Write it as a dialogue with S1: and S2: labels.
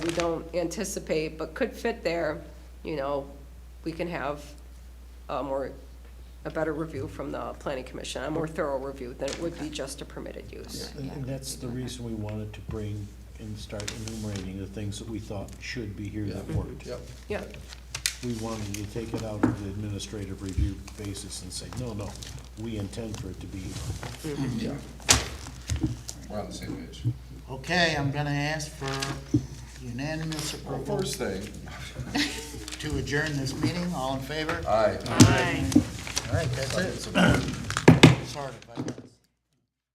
S1: we don't anticipate, but could fit there, you know, we can have a more, a better review from the planning commission, a more thorough review than it would be just a permitted use.
S2: And and that's the reason we wanted to bring and start enumerating the things that we thought should be here that
S3: Yeah. Mhm.
S2: weren't.
S3: Yep.
S1: Yeah,
S2: We wanted to take it out of the administrative review basis and say, no, no, we intend for it to be.
S3: Yeah. We're on the same page.
S4: Okay, I'm gonna ask for unanimous
S3: Well,
S4: approval
S3: first thing,
S4: to adjourn this meeting. All in favor?
S3: aye.
S4: All right, that's it.
S3: Support.
S4: Sorry, buddy.